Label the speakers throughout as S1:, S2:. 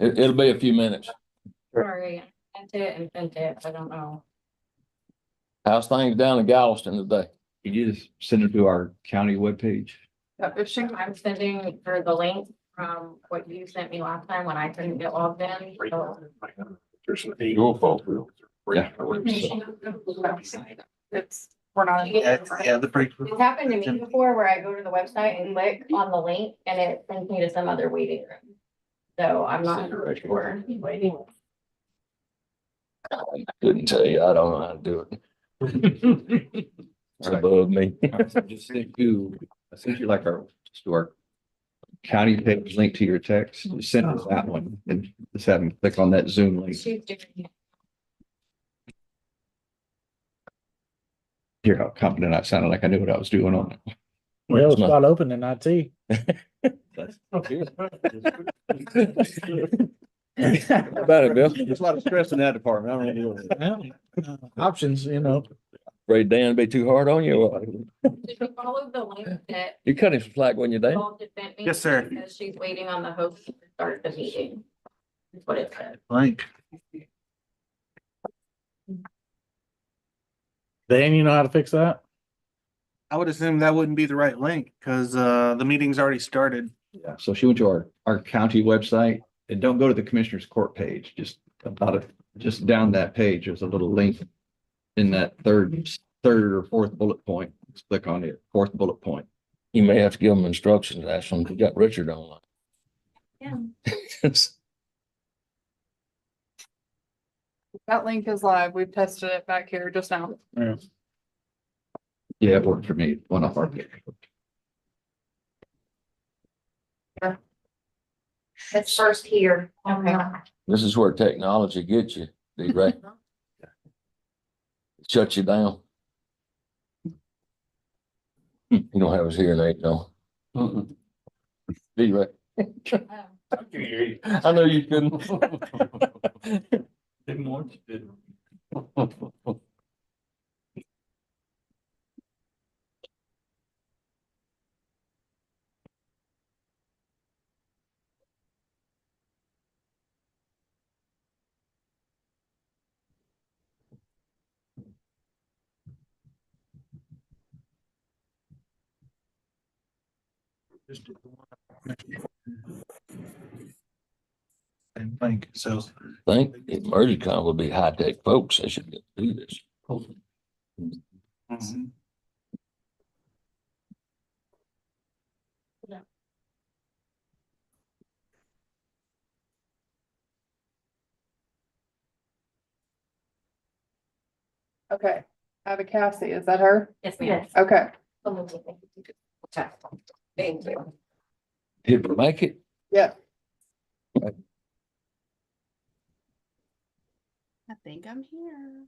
S1: It, it'll be a few minutes.
S2: Sorry, I sent it and sent it, I don't know.
S1: How's things down in Galveston today?
S3: Could you just send it to our county webpage?
S2: I'm sending her the link from what you sent me last time when I couldn't get logged in, so.
S1: Your fault.
S4: It's, we're not.
S2: It's
S5: Yeah, the break.
S2: happened to me before where I go to the website and click on the link and it brings me to some other waiting room. So I'm not sure.
S1: Couldn't tell you. I don't know how to do it. It's above me.
S3: Just send you, I sent you like our, just to our county page link to your text, Just send us that one and just have them click on that Zoom link.
S2: She's doing it.
S3: Hear how confident I sounded, like I knew what I was doing on it.
S6: Well, it's not open in IT.
S1: About it, Bill.
S5: There's a lot of stress in that department. I don't know.
S6: Well, uh, Options, you know.
S1: Afraid Dan be too hard on you. or what?
S2: Did you follow the link that
S1: You cut him some slack when you're down.
S2: Paul just sent me?
S5: Yes, sir.
S2: Because she's waiting on the host to start the meeting. That's what it said.
S5: Blank.
S6: Dan, you know how to fix that?
S5: I would assume that wouldn't be the right link because uh, the meeting's already started.
S3: Yeah, so she went to our, our county website and don't go to the commissioner's court page, just about it, just down that page, there's a little link. In that third, third or fourth bullet point, just click on it, fourth bullet point.
S1: You may have to give him instructions. That's when we got Richard online.
S2: Yeah.
S4: That link is live. We've tested it back here just now.
S3: Yeah, it worked for me, one off our. page.
S7: It's first here.
S2: Okay.
S1: This is where technology gets you, D-Ray. Shuts you down. You don't have us here, Nate, no? D-Ray. I know you couldn't.
S5: Didn't want to. And blank, so.
S1: Think Emergicon would be high-tech folks. They should do this.
S5: Mm-hmm.
S4: Okay. Abby Cassie, is that her?
S2: Yes, ma'am.
S4: Okay.
S2: Thank you.
S1: Did we make it?
S4: Yeah.
S7: I think I'm here.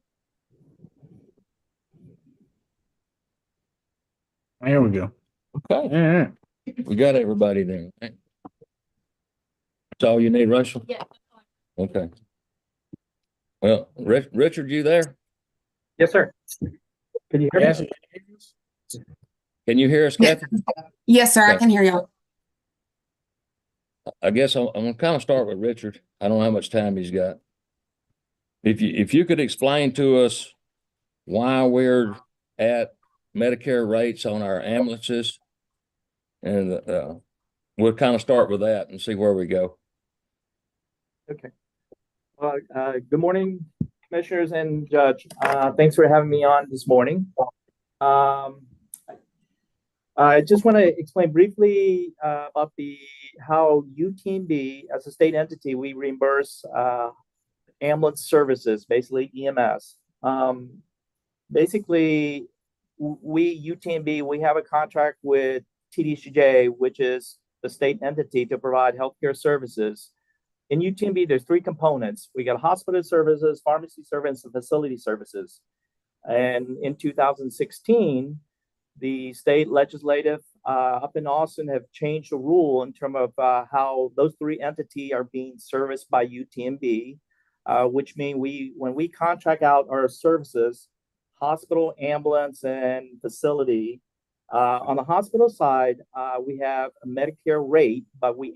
S6: There we go.
S1: Okay,
S6: Yeah.
S1: we got everybody there. right? That's all you need, Russell?
S2: Yeah.
S1: Okay. Well, Rich, Richard, you there?
S8: Yes, sir. Can you hear
S6: Yes.
S8: me?
S1: Can you hear us,
S9: Yeah.
S1: Kathy?
S9: Yes, sir, I
S1: Okay.
S9: can hear y'all.
S1: I guess I'm, I'm gonna kind of start with Richard. I don't know how much time he's got. If you, if you could explain to us why we're at Medicare rates on our ambulances. And, uh, we'll kind of start with that and see where we go.
S8: Uh, uh, Good morning, Commissioners and Judge. Uh, Thanks for having me on this morning. Um, I just want to explain briefly uh, about the, how UTMB, as a state entity, we reimburse uh, ambulance services, basically EMS. Um, Basically, w- we, UTMB, we have a contract with TDCJ, which is the state entity to provide healthcare services. In UTMB, there's three components. We got hospital services, pharmacy services, and facility services. And in 2016, the state legislative uh, up in Austin have changed the rule in terms of uh, how those three entities are being serviced by UTMB, uh, which mean we, when we contract out our services, hospital, ambulance, and facility, uh, on the hospital side, uh, we have a Medicare rate, but we